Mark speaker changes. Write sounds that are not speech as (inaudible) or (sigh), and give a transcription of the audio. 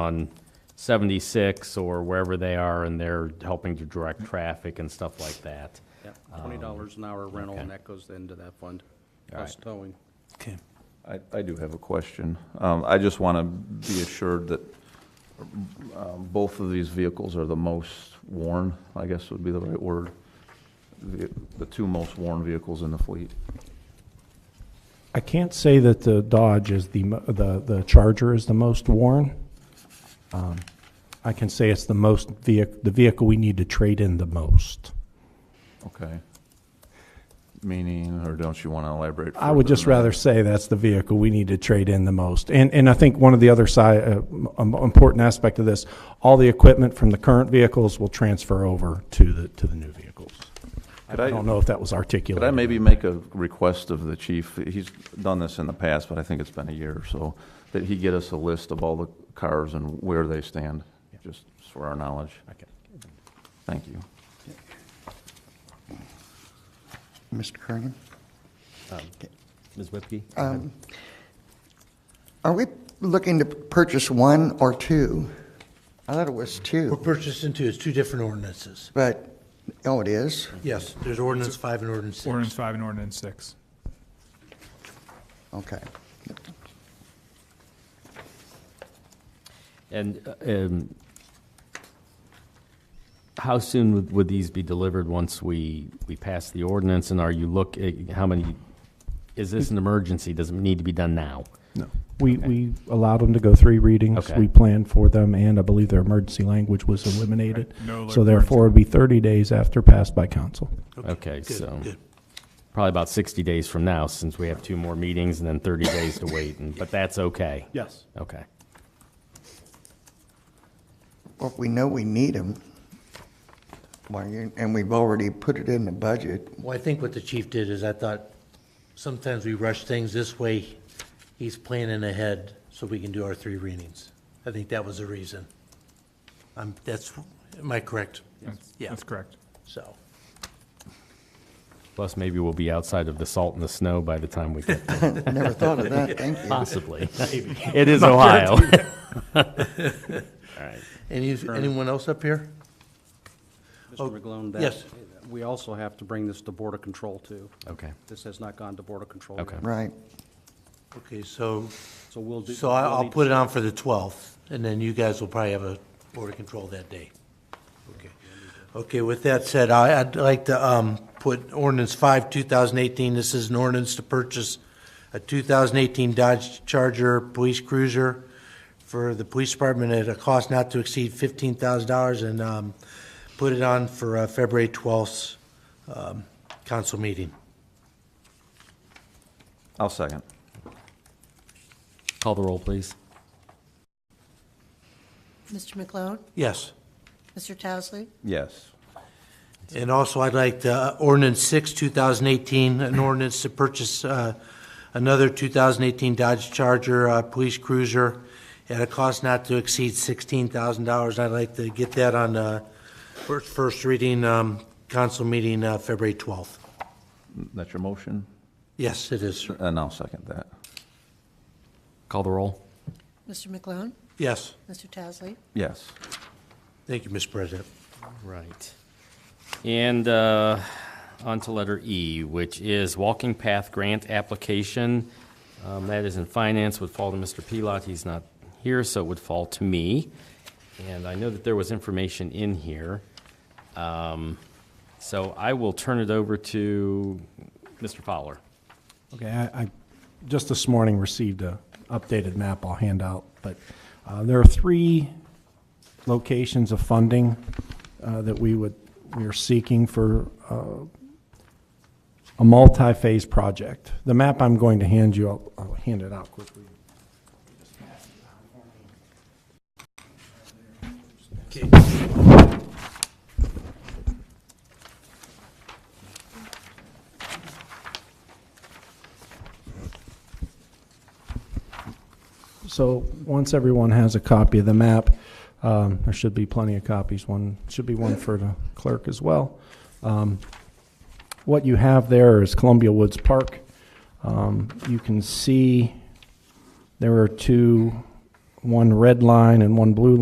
Speaker 1: on 76 or wherever they are, and they're helping to direct traffic and stuff like that.
Speaker 2: Yeah, twenty dollars an hour rental,
Speaker 1: Um, okay.
Speaker 2: and that goes into that fund,
Speaker 1: All
Speaker 2: plus
Speaker 1: right.
Speaker 2: towing.
Speaker 3: Okay.
Speaker 4: I, I do have a question. Um, I just want to be assured that um, both of these vehicles are the most worn, I guess would be the right word. The the two most worn vehicles in the fleet.
Speaker 5: I can't say that the Dodge is the, mo- the, the Charger is the most worn. Um, I can say it's the most vehic, the vehicle we need to trade in the most.
Speaker 4: Okay. Meaning, or don't you want to elaborate?
Speaker 5: I would
Speaker 4: further
Speaker 5: just
Speaker 4: on that?
Speaker 5: rather say that's the vehicle we need to trade in the most. And, and I think one of the other side, uh, um, important aspect of this, all the equipment from the current vehicles will transfer over to the, to the new vehicles. I
Speaker 4: Could I-
Speaker 5: don't know if that was articulated.
Speaker 4: Could I maybe make a request of the chief? He's done this in the past, but I think it's been a year or so, that he get us a list of all the cars and where they stand, just for our knowledge.
Speaker 5: Okay.
Speaker 4: Thank you.
Speaker 6: Mr. Kernan?
Speaker 1: Ms. Whipke?
Speaker 6: Um, Are we looking to purchase one or two? I thought it was
Speaker 7: We're
Speaker 6: two,
Speaker 7: purchasing two, it's two different ordinances.
Speaker 6: but, oh, it is?
Speaker 7: Yes, there's ordinance five and ordinance
Speaker 3: Ordinance
Speaker 7: six.
Speaker 3: five and ordinance six.
Speaker 6: Okay.
Speaker 1: And uh, um, how soon would- would these be delivered once we, we pass the ordinance? And are you look, eh, how many, is this an emergency? Does it need to be done now?
Speaker 5: We, we allowed them to go three readings.
Speaker 1: Okay.
Speaker 5: We planned for them, and I believe their emergency language was eliminated.
Speaker 3: Right. No
Speaker 5: So
Speaker 3: emergency.
Speaker 5: therefore, it'd be 30 days after passed by council.
Speaker 1: Okay,
Speaker 7: Good,
Speaker 1: so
Speaker 7: good.
Speaker 1: probably about 60 days from now, since we have two more meetings and then 30 days to wait, and- but that's okay?
Speaker 2: Yes.
Speaker 1: Okay.
Speaker 6: Well, we know we need them. And we've already put it in the budget.
Speaker 7: Well, I think what the chief did is I thought sometimes we rush things this way. He's planning ahead so we can do our three readings. I think that was the reason. I'm, that's, am I correct?
Speaker 3: That's-
Speaker 7: Yeah.
Speaker 3: That's correct.
Speaker 7: So,
Speaker 1: Plus, maybe we'll be outside of the salt and the snow by the time we get there.
Speaker 6: Never thought of that, thank you.
Speaker 1: (laughs) Possibly. It is Ohio. (laughs)
Speaker 7: any, anyone else up here?
Speaker 2: Mr. McGlone, that.
Speaker 7: Oh, yes.
Speaker 2: We also have to bring this to Board of Control too.
Speaker 1: Okay.
Speaker 2: This has not gone to Board of Control
Speaker 1: Okay.
Speaker 2: yet.
Speaker 6: Right.
Speaker 7: Okay, so,
Speaker 2: So we'll do.
Speaker 7: so I-
Speaker 2: we'll
Speaker 7: I'll
Speaker 2: need
Speaker 7: put it on for the twelfth, and then you guys will probably have a board of control that day. Okay. Okay, with that said, I, I'd like to, um, put ordinance five, two thousand eighteen, this is an ordinance to purchase a two thousand eighteen Dodge Charger Police Cruiser for the police department at a cost not to exceed fifteen thousand dollars, and, um, put it on for, uh, February twelfth, um, council meeting.
Speaker 4: I'll second.
Speaker 1: Call the roll, please.
Speaker 8: Mr. McLone?
Speaker 7: Yes?
Speaker 8: Mr. Towesley?
Speaker 4: Yes.
Speaker 7: And also, I'd like to, ordinance six, 2018, an ordinance to purchase uh, another 2018 Dodge Charger uh, Police Cruiser at a cost not to exceed $16,000. I'd like to get that on uh, first first reading, um, council meeting, uh, February 12th.
Speaker 4: That's your motion?
Speaker 7: Yes, it is, sir.
Speaker 4: And I'll second that.
Speaker 1: Call the roll.
Speaker 8: Mr. McLone?
Speaker 7: Yes.
Speaker 8: Mr. Towesley?
Speaker 4: Yes.
Speaker 7: Thank you, Mr. President.
Speaker 1: Right. And uh, on to letter E, which is walking path grant application. Um, That is in finance, would fall to Mr. Pilot. He's not here, so it would fall to me. And I know that there was information in here. Um, So I will turn it over to Mr. Fowler.
Speaker 5: Okay, I, I just this morning received a updated map I'll hand out, but uh, there are three locations of funding uh, that we would, we are seeking for uh, a multi-phase project. The map I'm going to hand you, I'll- I'll hand it out quickly. So, once everyone has a copy of the map, um, there should be plenty of copies. One, should be one for the clerk as well. Um, What you have there is Columbia Woods Park. Um, You can see there are two one red line and one blue